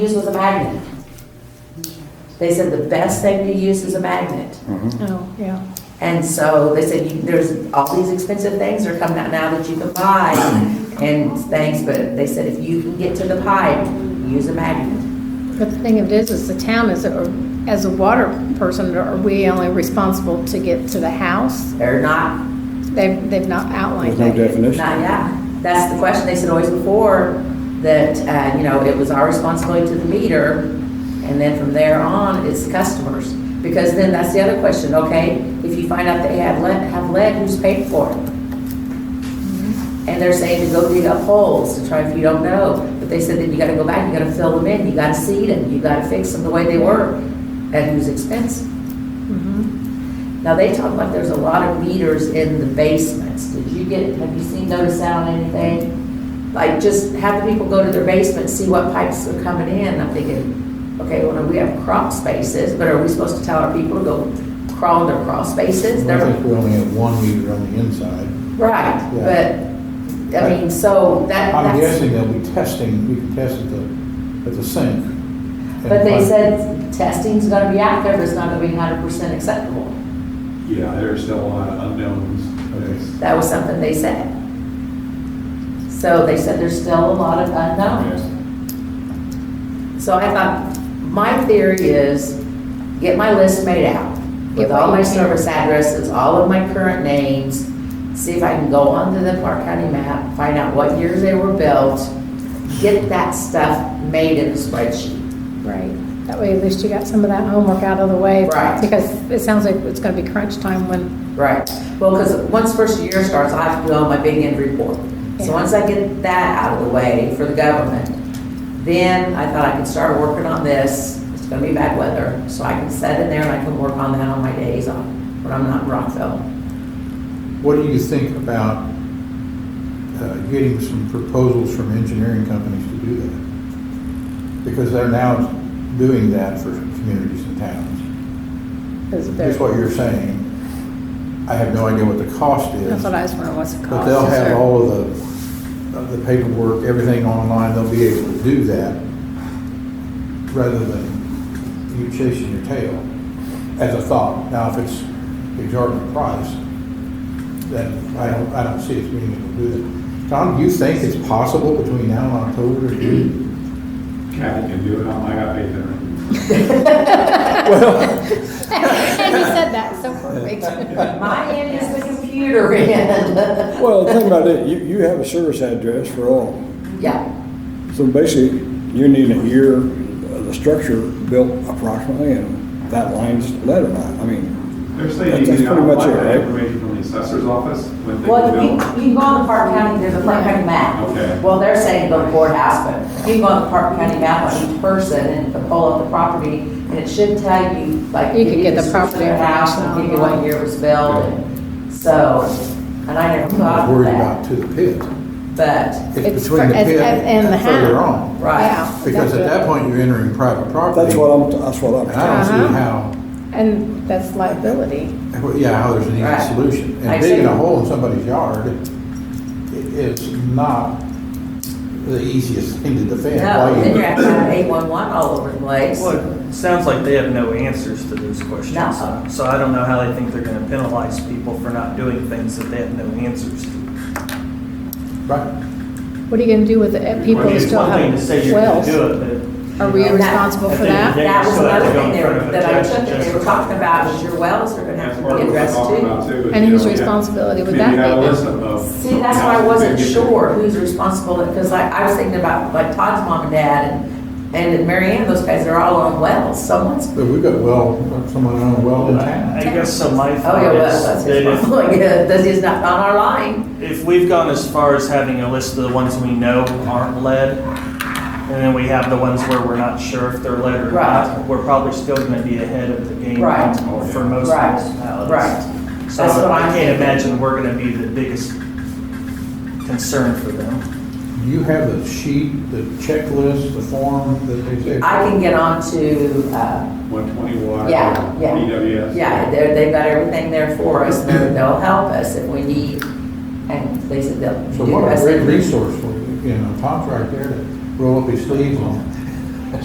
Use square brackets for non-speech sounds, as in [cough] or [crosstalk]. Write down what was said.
Use was a magnet. They said the best thing to use is a magnet. Oh, yeah. And so they said, you- there's all these expensive things are coming out now that you can buy and things, but they said if you can get to the pipe, use a magnet. But the thing of it is, is the town is, or as a water person, are we only responsible to get to the house? They're not, They've, they've not outlined There's no that. definition. not yet. That's the question. They said always before that, uh, you know, it was our responsibility to the meter. And then from there on, it's the customers. Because then that's the other question, okay? If you find out they have lead, have lead, who's paid for it? And they're saying to go dig up holes to try if you don't know. But they said that you gotta go back, you gotta fill them in, you gotta seed them, you gotta fix them the way they were, at whose expense. Mm-hmm. Now, they talk like there's a lot of meters in the basements. Did you get, have you seen, notice that on anything? Like, just have the people go to their basement, see what pipes are coming in. I'm thinking, okay, well, we have crop spaces, but are we supposed to tell our people to go crawl in their crawl spaces? Well, I They're- think we only have one meter on the inside. Right, but, I mean, so that, I'm that's, guessing they'll be testing, we can test at the, at the sink. but they said testing's gonna be out there, but it's not gonna be hundred percent acceptable. Yeah, there's still a lot of unknowns. There's- That was something they said. So they said there's still a lot of unknowns. So I thought, my theory is, get my list made out with Get what all my you can. service addresses, all of my current names, see if I can go onto the Clark County map, find out what years they were built, get that stuff made in a spreadsheet. Mm-hmm. Right. That way at least you got some of that homework out of the way. Right. Because it sounds like it's gonna be crunch time when, Right. Well, because once first year starts, I have to do all my big end report. So Yeah. once I get that out of the way for the government, then I thought I could start working on this. It's gonna be bad weather, so I can set in there and I can work on that on my days off when I'm not in Rockville. What do you think about uh, getting some proposals from engineering companies to do that? Because they're now doing that for communities and towns. because they're, Here's what you're saying. I have no idea what the cost is. that's what I was wondering, what's the cost? But they'll Is have there- all of the, of the paperwork, everything online, they'll be able to do that rather than you chasing your tail as a thought. Now, if it's exorbitant price, then I don't, I don't see us being able to do that. Tom, do you think it's possible between now and October to do? Kathy can do it, I'm- I got faith in her. [laughs] And you said that so [laughs] perfect. My end is the computer end. Well, the thing about it, you, you have a service address for all. [laughs] Yeah, So basically, you need a year of the structure built approximately, and that line's lead or not. I mean, They're saying That's- you that's can pretty much apply it, that right? information from the assessor's office when they well, you, build. you can go on the Park County, there's a Park County map. Okay. Well, they're saying go to courthouse, but you can go on the Park County map on each person and pull up the property, and it should tell you, like. You can give get the description of property the House, and give you what year it was built, and so, and I never I thought was of worried that, about to the pit. but, It's It's between for- the as- pit as- and the and further house. on. Right. Yeah, Because at that's that it. point, you're entering private property. that's what I'm, that's what And I I'm, don't see Uh-huh. how. And that's liability. Well, Yeah, how there's an Right. easy solution. I And digging see. a hole in somebody's yard i- is not the easiest thing to defend. no, Why then you- you're gonna have eight-one-one all over the place. Well, it sounds like they have no answers to those questions. No. So I don't know how they think they're gonna penalize people for not doing things that they have no answers to. Right. What are you gonna do with the uh, people I mean, that it's still one thing to say have you're gonna wells? do it, but. Are you we know, responsible I for think that? they That was still have another to go thing in they were- front of a that I judge took, that and they judge were it. talking about is your wells are gonna have That's to part be of what we're addressed talking too. about too. is, And you whose know, yeah. responsibility would Maybe that you have a be? list of- of See, that's why I houses wasn't that get- sure who's responsible, because I, I was thinking about like Todd's mom and dad and, and Mary Ann, those guys, they're all on wells, someone's, But we've got well, someone on a well in I I town. guess so my oh thought yeah, is well, that's that his if problem, [laughs] yeah, that's he's not on our line. if we've gone as far as having a list of the ones we know aren't lead, and then we have the ones where we're not sure if they're lead or Right. not, we're probably still gonna be ahead of the game Right. for most Right. municipalities. Right. So That's what I I'm can't thinking. imagine we're gonna be the biggest concern for them. Do you have the sheet, the checklist, the form that they say? I can get on to, uh, 120 water. yeah, yeah. DWS. Yeah, they're, they've got everything there for us, they're- they'll help us if we need, and they said they'll do So the what a best. great resource for you, you know, Tom's right there to roll up his sleeves on.